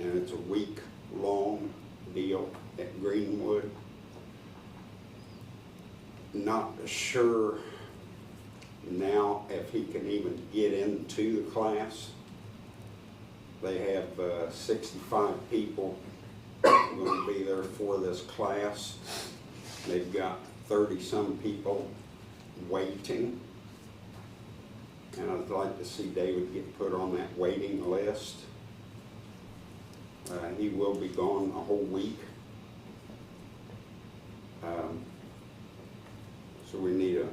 and it's a week-long deal at Greenwood. Not sure now if he can even get into the class. They have uh, sixty-five people gonna be there for this class. They've got thirty-some people waiting. And I'd like to see David get put on that waiting list. Uh, he will be gone a whole week. Um, So we need a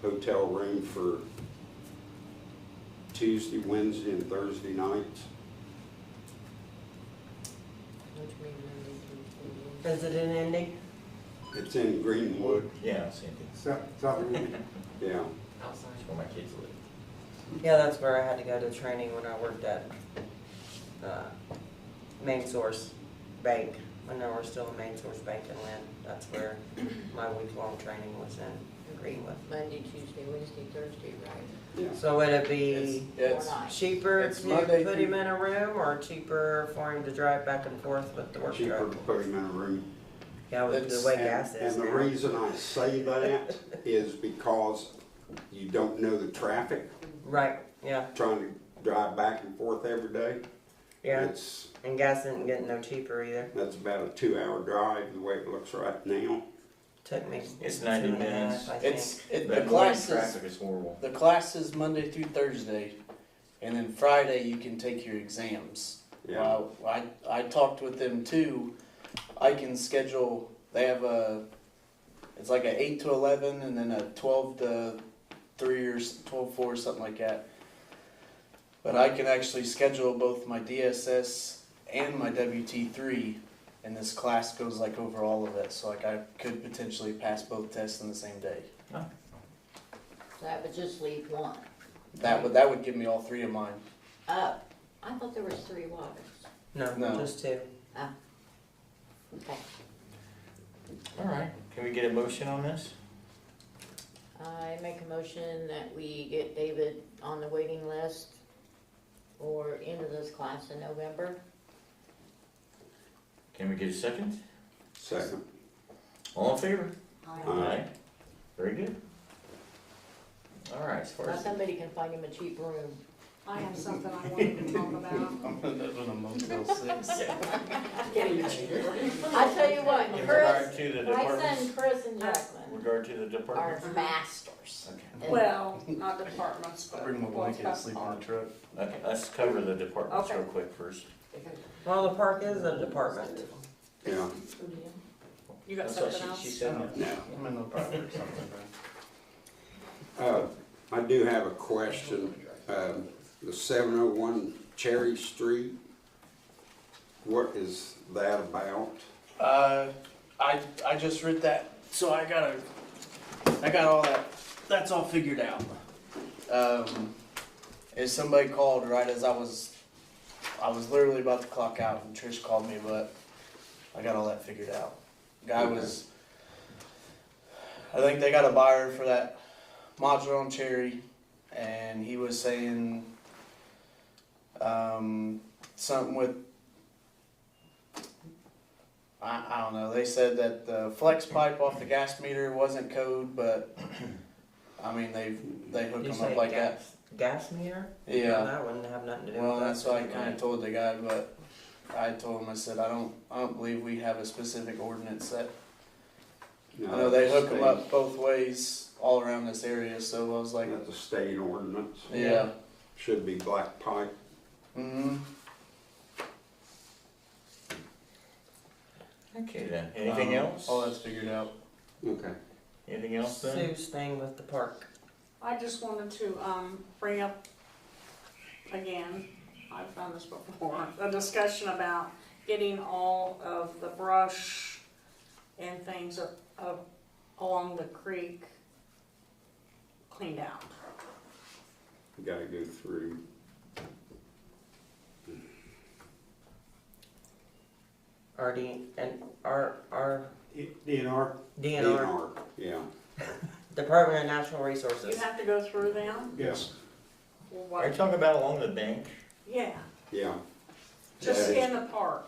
hotel room for Tuesday, Wednesday, and Thursday nights. Which means Monday through Thursday. Is it an ending? It's in Greenwood, Yeah, I've seen it. South, South Greenwood. yeah. Outside. It's where my kids live. Yeah, that's where I had to go to training when I worked at, uh, Main Source Bank. I know we're still in Main Source Bank in Lynn. That's where my week-long training was in Greenwood. Monday, Tuesday, Wednesday, Thursday, right? Yeah, So would it be It's- It's, Four nights. cheaper It's to Monday put through- him in a room or cheaper for him to drive back and forth with the work cheaper truck? to put him in a room. Yeah, with the It's- way And- gas is And the now. reason I say that is because you don't know the traffic, Right, yeah, trying to drive back and forth every day. yeah. It's, And gas isn't getting no cheaper either. that's about a two-hour drive, the way it looks right now. Took me. it's two ninety and a half, minutes. I It's, it, the That morning classes, traffic is horrible. the classes Monday through Thursday, and then Friday you can take your exams. Yeah, Uh, I, I talked with them too, I can schedule, they have a, it's like a eight to eleven and then a twelve to three or s- twelve four, something like that. But I can actually schedule both my DSS and my WT three, and this class goes like over all of it, so like I could potentially pass both tests in the same day. So that would just leave one. That would that would give me all three of mine. Up. I thought there was three waters. think. No, No. just two. Okay. Alright, can we get a motion on this? I make a motion that we get David on the waiting list or into this class in November. Can we get a second? second. All in favor? Aye. Very good. Alright, as far Now as, somebody can find him a cheap room. I have something I wanted to talk about. I'm gonna live in a Motel Six. I tell you what, in regard Chris, to the my departments, son Chris and in Jacqueline regard to the are departments. masters. Okay, And- Well, not departments, I'll but. bring my what's blanket and sleep on the truck. let- let's cover the departments Okay. real quick first. Well, the park is a department. Yeah, You got That's what something she- she else? said. now, I'm in the private or something. right? uh, I do have a question. Um, the seven oh one Cherry Street, what is that about? Uh, I I just read that, so I gotta, I got all that. That's all figured out. Um, is somebody called right as I was, I was literally about to clock out, and Trish called me, but I got all that figured out. Guy was, I think they got a buyer for that modular on Cherry, and he was saying, um, something with I, I don't know. They said that the flex pipe off the gas meter wasn't code, but I mean they they hook You them say up like that. gas, gas meter? Well, Yeah. That wouldn't have nothing to do with Well, that. that's what I kind of told the guy, but I told him I said I don't I don't believe we have a specific ordinance that I know they hook them up both ways all around this area. So I was like, That's a state ordinance, yeah. should be black pipe. Mm-hmm. Okay then, anything else? Um, All that's figured out. Okay. Anything else then? Sue's thing with the park. I just wanted to, um, bring up, again, I've done this before, a discussion about getting all of the brush and things up, up along the creek cleaned out. You gotta go through, RD and R, R, DNR, DNR, DNR, yeah. Department of Natural You Resources. have to go through them? yes. Well, Are you What? talking about along the bank? Yeah, Yeah, just Yeah. in the park.